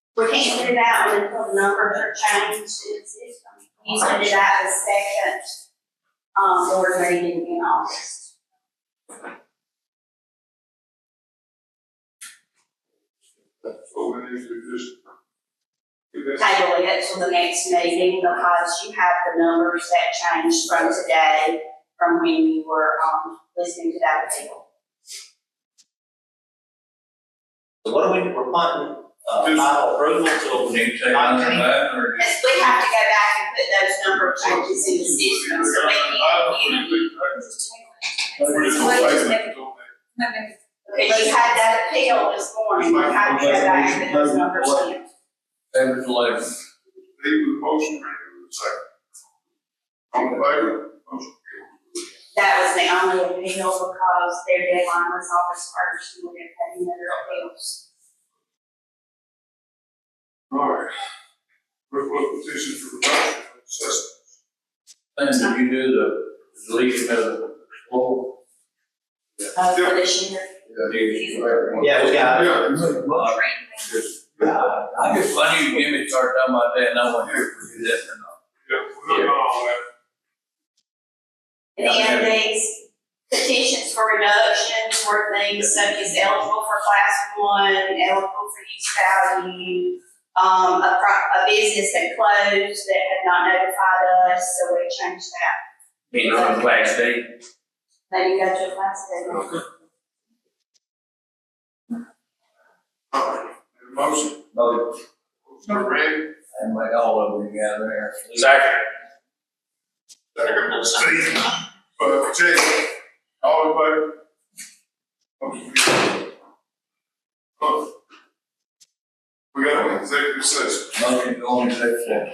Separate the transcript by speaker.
Speaker 1: We can't get it out until the numbers are changed, it's, it's, usually it out the second, um, board meeting in August.
Speaker 2: So we need to just. do that.
Speaker 1: Table it till the next meeting because you have the numbers that changed from today, from when you were, um, listening to that table.
Speaker 3: So what are we, we're wanting, uh,
Speaker 2: Just-
Speaker 3: final approval till
Speaker 4: Can you take on that or?
Speaker 1: Because we have to go back and put those number changes in the system, so we
Speaker 2: I
Speaker 1: can,
Speaker 2: don't
Speaker 1: not
Speaker 2: think we can. We're just
Speaker 1: What
Speaker 2: gonna
Speaker 1: is it?
Speaker 2: table it until next-
Speaker 1: Because you had that appeal this morning, we have to go back and put those numbers in.
Speaker 4: Seven to eleven.
Speaker 2: leave with the motion, ready with the second. On the favor, motion carries.
Speaker 1: That was the only appeal because their deadline was August first, and we're gonna have another appeals.
Speaker 2: All right. Request petition for adoption, assessment.
Speaker 4: Then did you do the deletion of the floor?
Speaker 1: Uh, for this year.
Speaker 3: Yeah, we got it.
Speaker 2: Yeah,
Speaker 4: Well, I I just, I knew you Jimmy started talking about that and I went here for you that or not.
Speaker 2: yeah, we're looking at all that.
Speaker 1: And then these petitions for reductions were things such as eligible for class one, eligible for use value, um, a pro, a business that closed that had not notified us, so we changed that.
Speaker 4: Being on class day.
Speaker 1: Then you go to a class seven.
Speaker 2: All right. And Motion,
Speaker 4: No,
Speaker 2: motion for Randy,
Speaker 4: and like all of you gather there.
Speaker 2: Second. second for Steve, uh, Jay, all in favor? Motion carries. Uh, Oh, We got an executive session.
Speaker 4: Motion going to that.